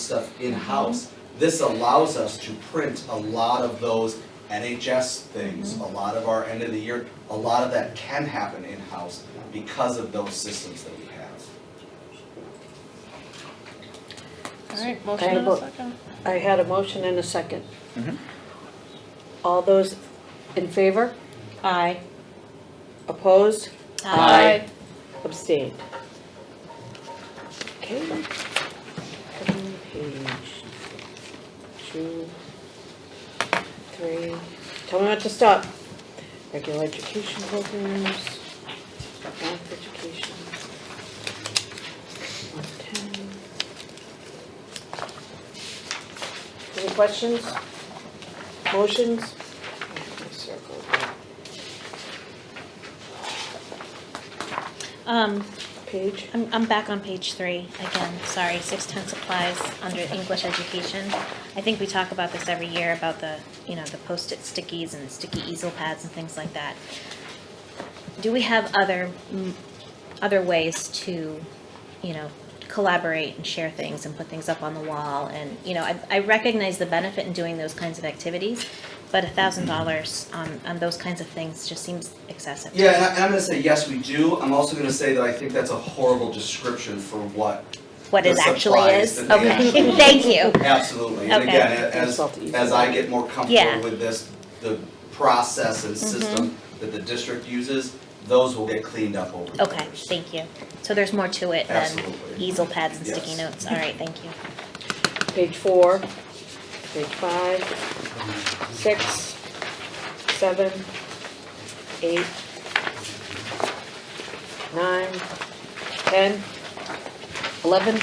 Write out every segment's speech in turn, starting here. stuff in-house. This allows us to print a lot of those NHS things, a lot of our end of the year, a lot of that can happen in-house because of those systems that we have. All right, motion and a vote. second. I had a motion and a second. All those in favor? Aye. Opposed? Aye. Abstained? Okay. Turn Page two, three, tell me not to stop. Regular education programs, math education. One ten. Any questions? Motions? I circled that Um, Page? I'm, I'm back on page three again, sorry, six-ten supplies under English education. I think we talk about this every year about the, you know, the post-it stickies and the sticky easel pads and things like that. Do we have other, mm, other ways to, you know, collaborate and share things and put things up on the wall? And, you know, I, I recognize the benefit in doing those kinds of activities, but a thousand Mm-hmm. dollars on, on those kinds of things just seems excessive. Yeah, and I- and I'm gonna say, yes, we do. I'm also gonna say that I think that's a horrible description for what What it The actually supplies that is? they Okay, actually- thank you. Absolutely, and Okay. again, a- as, Insult to ease. as I get more Yeah. Mm-hmm. comfortable with this, the process and system that the district uses, those will get cleaned up over the years. Okay, thank you. So there's more to it than Absolutely. easel pads and sticky Yes. notes. All right, thank you. Page four, page five, six, seven, eight, nine, ten, eleven,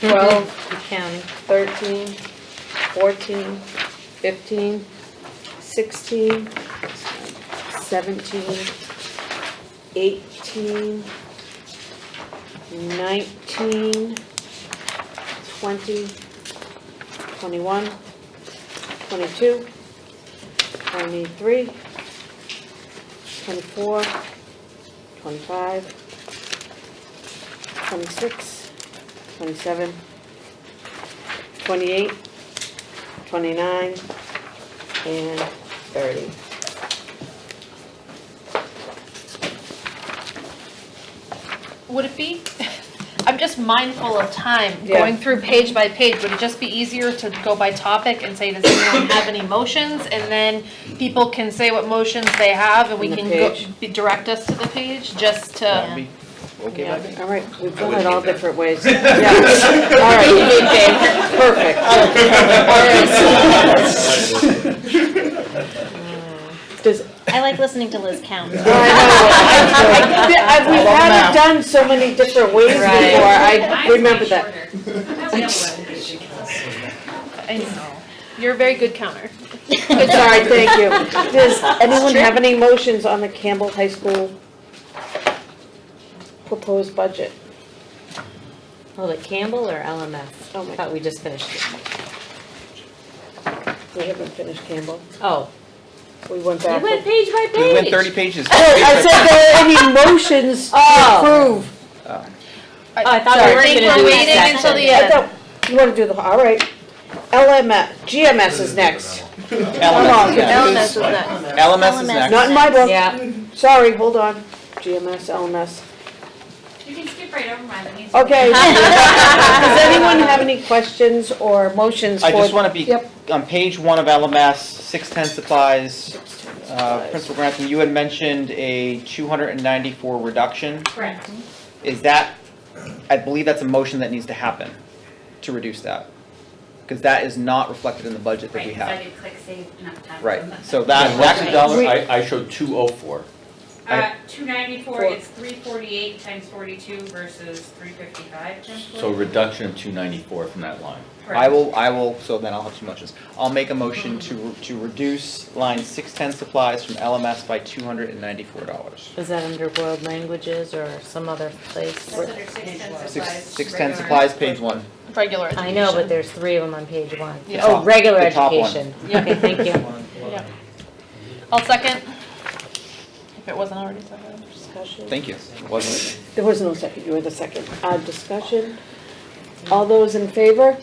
twelve, counting, thirteen, fourteen, fifteen, sixteen, seventeen, eighteen, nineteen, 20, 21, 22, 23, 24, 25, 26, 27, 28, 29, and 30. Would it be, I'm just mindful of time, Yeah. going through page by page, would it just be easier to go by topic and say, does anyone have any motions? And then people can say what motions they have and we On the can go, page. be- direct us to the page, just Yeah. to. Okay, All right, we've I done would it all need that. different ways. Yeah. All right, you need Dave. perfect. Oh, Does I like listening to Liz count. I know. I- I- I- We've had it done so many different ways before, Right. I remember that. I know. You're a very good counter. All right, thank you. Does anyone have any motions on the Campbell High School proposed budget? Hold it, Oh, Campbell or LMS? Oh my- Thought we just finished it. We haven't finished Campbell. Oh. We went back. page by We went thirty pages. I said there are any motions to approve. Oh, I thought we were Sorry. gonna do We're that waiting section. until the uh, I end. thought, you wanna do the, all right. LMS, GMS is next. Hold LMS on, is next. Ellen is next. LMS is next. Not in my book. Yeah, Sorry, hold on. GMS, LMS. You can skip right over mine, that means. Okay. Does anyone have any questions or motions for? I just wanna be, Yep. on page one of LMS, six-ten supplies, uh, Principal Grantham, you had mentioned a two hundred and ninety-four reduction. Correct. Is that, I believe that's a motion that needs to happen to reduce that. Cause that is not reflected in the budget that we Right, so I have. could click save enough time. Right, so that, that's a dollar, Right. I, I showed two oh four. Uh, two ninety-four Four. is three forty-eight times forty-two versus three fifty-five times forty-two. so reduction of two ninety-four from that line. I will, I will, so then I'll have two motions. I'll make a motion to, to reduce line six-ten supplies from LMS by two hundred and ninety-four dollars. is that under world languages or some other place? That's under six ten supplies. Six, six-ten regular. supplies, page one. Regular I education. know, but there's three of them on page one. Yeah. Oh, regular The top one. education. Okay, thank you. Yeah. I'll second. If it wasn't already seconded. Discussion. Thank you. Wasn't it? There was no second, you were the second. Uh, discussion, All those in favor?